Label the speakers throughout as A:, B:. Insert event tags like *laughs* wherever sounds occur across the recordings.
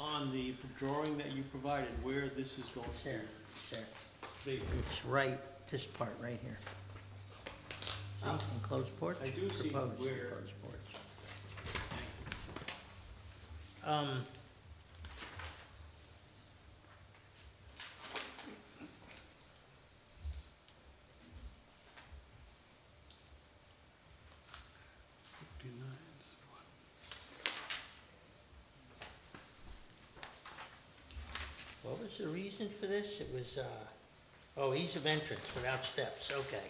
A: on the drawing that you provided where this is going
B: Sarah, Sarah,
A: to be?
B: it's right, this part right here.
A: Oh.
B: See, enclosed porch?
A: I do see
B: proposed
A: where-
B: enclosed porch. Um. What was the reason for this? It was, uh, oh, ease of entrance without steps, okay.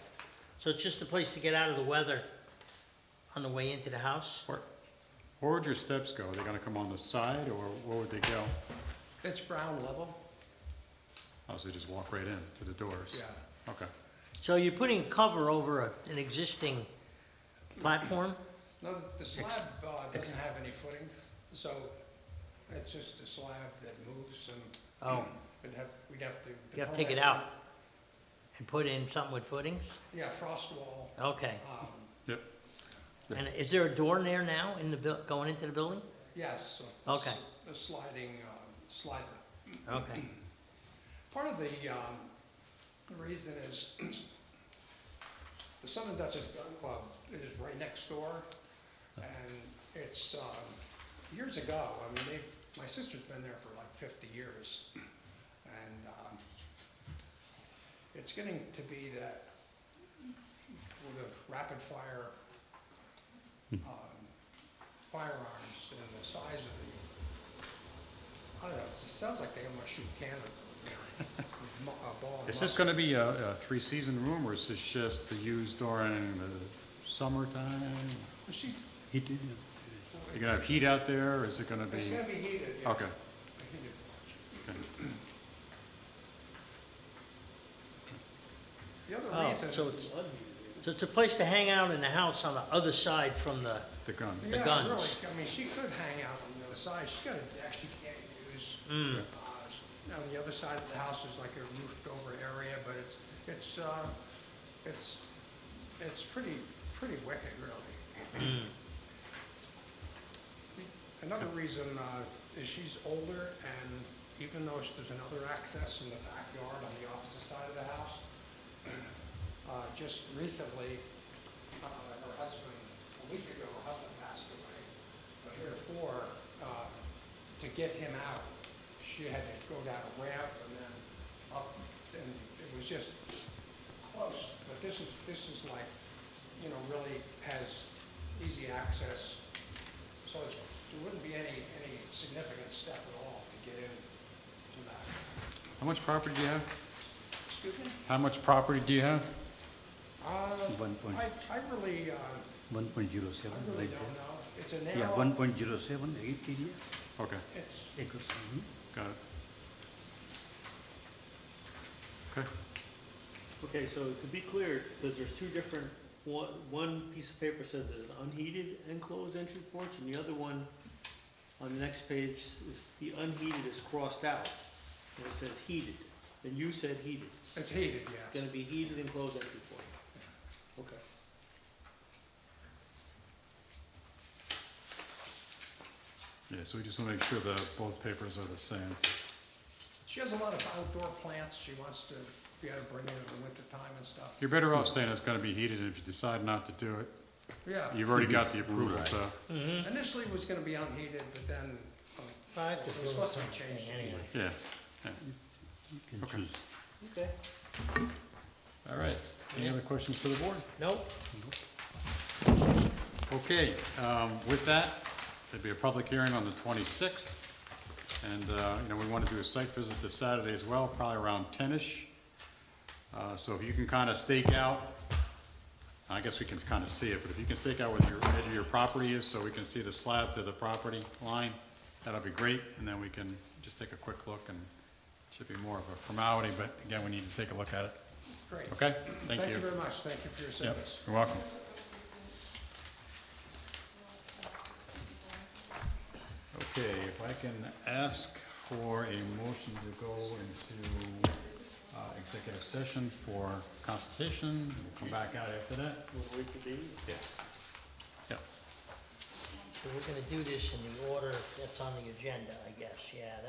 B: So it's just a place to get out of the weather on the way into the house?
C: Where, where would your steps go? Are they gonna come on the side, or where would they go?
D: It's ground level.
C: Oh, so you just walk right in to the doors? Yeah. Okay.
B: So you're putting a cover over a- an existing platform?
D: No, the- the slab uh, doesn't have any footings, so it's just a slab that moves and.
B: Oh.
D: We'd have, we'd have to.
B: You have to take it out and put in something with footings?
D: Yeah, frost wall.
B: Okay.
D: um,
C: Yep.
B: And is there a door in there now in the, buil- going into the building?
D: Yes. so the
B: Okay.
D: s- The sliding, um, slide.
B: Okay.
D: Part of the um, the reason is the Southern Dutchess Gun Club is right next door. And it's, um, years ago, I mean, they've, my sister's been there for like 50 years. And um, it's getting to be that with the rapid fire
C: Hmm.
D: um, firearms and the size of the, I don't know, it sounds like they almost shoot
C: *laughs*
D: cannon. with mu- a ball and
C: Is this
D: muzzle.
C: gonna be a, a three-season room, or is this just to use during the summertime?
D: She-
C: Heat, you are gonna have heat out there, or is it gonna
D: It's
C: be?
D: gonna be heated, yeah.
C: Okay.
D: Heated.
C: okay.
D: The other
B: Oh,
D: reason.
B: so it's, so it's a place to hang out in the house on the other side from the,
C: The gun.
D: Yeah, really,
B: guns.
D: I mean, she could hang out on the other side, she's got a deck she can't use.
B: mm,
D: Uh, On the other side of the house is like a roofed over area, but it's, it's, uh, it's, it's pretty, pretty wicked, really. The- Another reason, uh, is she's older and even though there's another access in the backyard on the opposite side of the house, *clears throat* uh, just recently, uh, her husband, a week ago, her husband passed away. But therefore, uh, to get him out, she had to go down a ramp and then up, and it was just close. But this is, this is like, you know, really has easy access. So it's, there wouldn't be any, any significant step at all to get in to that.
C: How much property do you have?
D: Excuse me?
C: How much property do you have?
D: Uh,
E: One point,
D: I, I really, uh,
E: one point zero
D: I
E: seven,
D: really
E: right
D: don't
E: there.
D: know. It's a
E: Yeah, one
D: narrow,
E: point zero seven, eight area,
C: Okay,
D: it's,
E: acres. mhm.
C: got it. Okay,
A: Okay, so to be clear, because there's two different, one, one piece of paper says there's an unheated enclosed entry porch, and the other one on the next page, is the unheated is crossed out, and it says heated, and you said heated.
D: it's heated,
A: It's
D: yeah.
A: gonna be heated enclosed entry porch. Okay.
C: yeah, so we just wanna make sure that both papers are the same.
D: She has a lot of outdoor plants she wants to be able to bring in in the wintertime and stuff.
C: You're better off saying it's gonna be heated, and if you decide not to do it,
D: Yeah,
C: You've already got the approval,
E: Right.
C: so,
D: initially it was gonna be unheated, but then, um,
B: Well,
D: it
B: that's
D: was
B: a
D: supposed to be
B: little
D: changed.
B: thing anyway.
C: yeah.
E: You can
C: Okay.
E: choose.
A: Okay.
C: All right. Any other questions for the board?
B: nope,
C: Okay, um, with that, there'd be a public hearing on the twenty-sixth. And, uh, you know, we want to do a site visit this Saturday as well, probably around ten-ish. Uh, so if you can kind of stake out, I guess we can kind of see it, but if you can stake out where your edge of your property is, so we can see the slab to the property line, that'll be great, and then we can just take a quick look and should be more of a formality, but again, we need to take a look at it.
D: Great.
C: Okay, thank you.
D: Thank you very much, thank you for your
C: Yep,
D: service.
C: you're welcome. Okay, if I can ask for a motion to go into uh, executive session for consultation, we'll come back out after that.
A: We'll reconvene.
C: Yeah. Yep.
B: So we're gonna do this in the order that's on the agenda, I guess, yeah,